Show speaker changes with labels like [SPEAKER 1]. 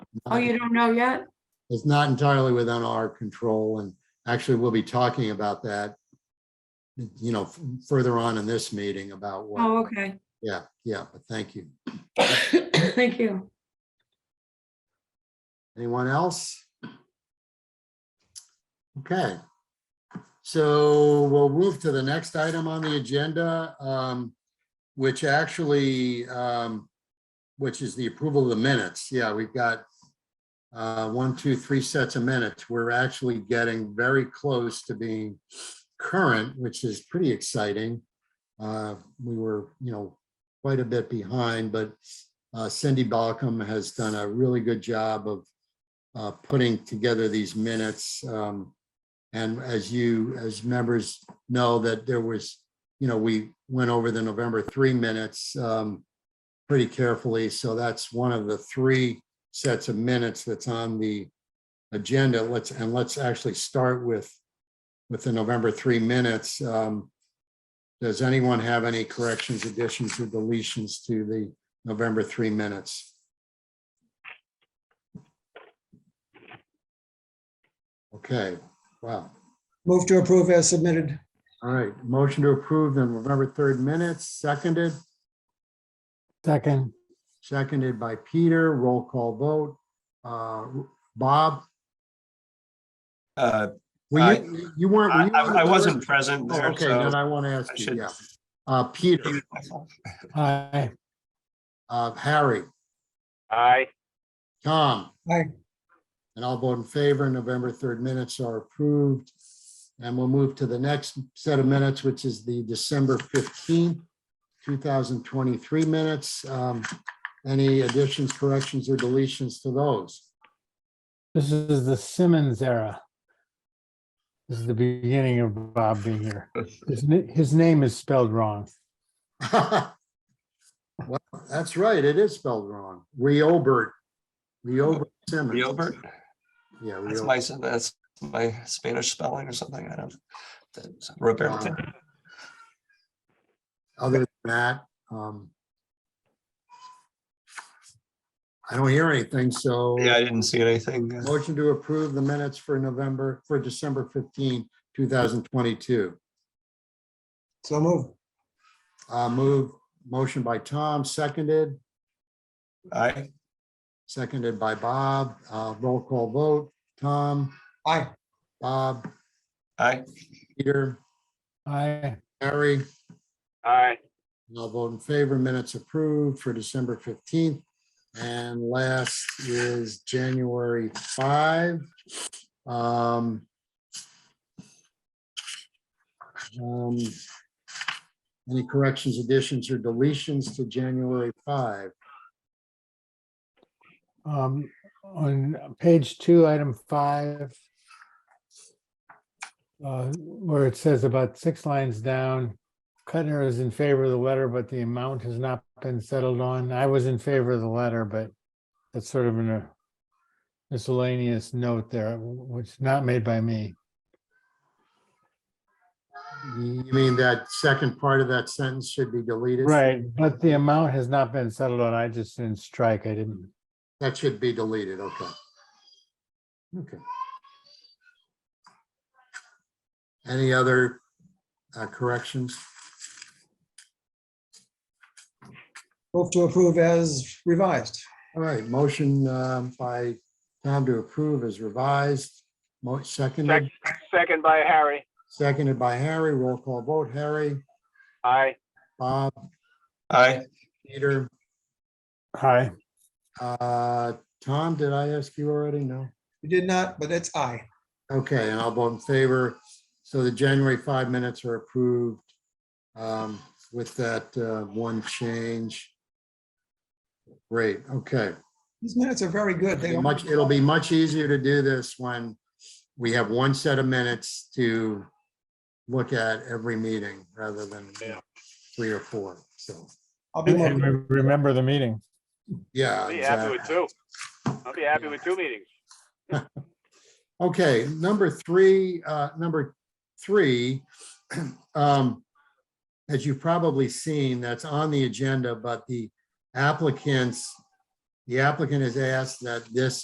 [SPEAKER 1] Oh, you don't know yet?
[SPEAKER 2] It's not entirely within our control and actually we'll be talking about that. You know, f- further on in this meeting about
[SPEAKER 1] Oh,
[SPEAKER 2] what,
[SPEAKER 1] okay.
[SPEAKER 2] yeah, yeah, but thank you.
[SPEAKER 1] Thank you.
[SPEAKER 2] Anyone else? Okay. So we'll move to the next item on the agenda, um, which actually, um, which is the approval of the minutes. Yeah, we've got uh, one, two, three sets of minutes. We're actually getting very close to being current, which is pretty exciting. Uh, We were, you know, quite a bit behind, but uh, Cindy Balcom has done a really good job of uh, putting together these minutes. um, And as you, as members know that there was, you know, we went over the November three minutes um, pretty carefully. So that's one of the three sets of minutes that's on the agenda. Let's, and let's actually start with, with the November three minutes. Um, Does anyone have any corrections, additions or deletions to the November three minutes. Okay, wow.
[SPEAKER 3] Move to approve as submitted.
[SPEAKER 2] All right, motion to approve the November third minutes, seconded,
[SPEAKER 3] Second.
[SPEAKER 2] seconded by Peter, roll call vote. Uh, Bob,
[SPEAKER 4] Uh,
[SPEAKER 2] were you, you weren't. were
[SPEAKER 4] I,
[SPEAKER 2] you on the
[SPEAKER 4] I I wasn't
[SPEAKER 2] first?
[SPEAKER 4] present
[SPEAKER 2] Oh,
[SPEAKER 4] there,
[SPEAKER 2] Okay, then
[SPEAKER 4] so.
[SPEAKER 2] I want to
[SPEAKER 4] I
[SPEAKER 2] ask you,
[SPEAKER 4] should-
[SPEAKER 2] yeah. Uh, Peter,
[SPEAKER 3] Aye.
[SPEAKER 2] uh, Harry,
[SPEAKER 5] Aye.
[SPEAKER 2] Tom.
[SPEAKER 3] Aye.
[SPEAKER 2] And I'll vote in favor. November 3rd minutes are approved. And we'll move to the next set of minutes, which is the December 15th, 2023 minutes. Um, Any additions, corrections, or deletions to those?
[SPEAKER 6] This is the Simmons era. This is the beginning of Bob being here. His, n- his name is spelled wrong.
[SPEAKER 2] Well, that's right. It is spelled wrong. Reobert. Reobert Simmons.
[SPEAKER 4] Reobert,
[SPEAKER 2] Yeah.
[SPEAKER 4] that's
[SPEAKER 2] Reobert.
[SPEAKER 4] my, that's my Spanish spelling or something, I don't. that's Roberto.
[SPEAKER 2] Uh, other than that, um, I don't hear anything, so
[SPEAKER 4] Yeah, I didn't see anything. uh,
[SPEAKER 2] motion to approve the minutes for November, for December 15, 2022.
[SPEAKER 3] So move.
[SPEAKER 2] Uh, move, motion by Tom, seconded,
[SPEAKER 4] Aye,
[SPEAKER 2] seconded by Bob, uh, roll call vote, Tom,
[SPEAKER 3] Aye.
[SPEAKER 2] Bob,
[SPEAKER 4] aye,
[SPEAKER 2] Peter,
[SPEAKER 6] I,
[SPEAKER 2] Harry.
[SPEAKER 5] Aye.
[SPEAKER 2] And I'll vote in favor. Minutes approved for December fifteenth. And last is January five. Um, um, Any corrections, additions, or deletions to January five?
[SPEAKER 6] um, on page two, item five, uh, where it says about six lines down, Cutner is in favor of the letter, but the amount has not been settled on. I was in favor of the letter, but that's sort of a miscellaneous note there, which not made by me.
[SPEAKER 2] You mean that second part of that sentence should be deleted?
[SPEAKER 6] Right, but the amount has not been settled on. I just didn't strike. I didn't.
[SPEAKER 2] That should be deleted, okay. Okay. Any other uh, corrections?
[SPEAKER 3] Move to approve as revised.
[SPEAKER 2] All right, motion um, by Tom to approve is revised. Mo- Seconded,
[SPEAKER 5] Second. Second by Harry.
[SPEAKER 2] seconded by Harry. Roll call vote. Harry,
[SPEAKER 5] Aye.
[SPEAKER 2] Bob,
[SPEAKER 4] aye,
[SPEAKER 2] Peter,
[SPEAKER 6] Hi.
[SPEAKER 2] uh, Tom, did I ask you already? No?
[SPEAKER 3] You did not, but it's aye.
[SPEAKER 2] Okay, and I'll vote in favor. So the January five minutes are approved um, with that uh, one change. Great, okay.
[SPEAKER 3] These minutes are very good. They
[SPEAKER 2] It'll much, it'll be much easier to do this when we have one set of minutes to look at every meeting rather than you know, three or four. So,
[SPEAKER 3] I'll be
[SPEAKER 6] And
[SPEAKER 3] more-
[SPEAKER 6] re- remember the meeting.
[SPEAKER 2] yeah.
[SPEAKER 5] I'll be happy with
[SPEAKER 2] exactly.
[SPEAKER 5] two. I'll be happy with two meetings.
[SPEAKER 2] Okay, number three, uh, number three. um, As you've probably seen, that's on the agenda, but the applicants, the applicant has asked that this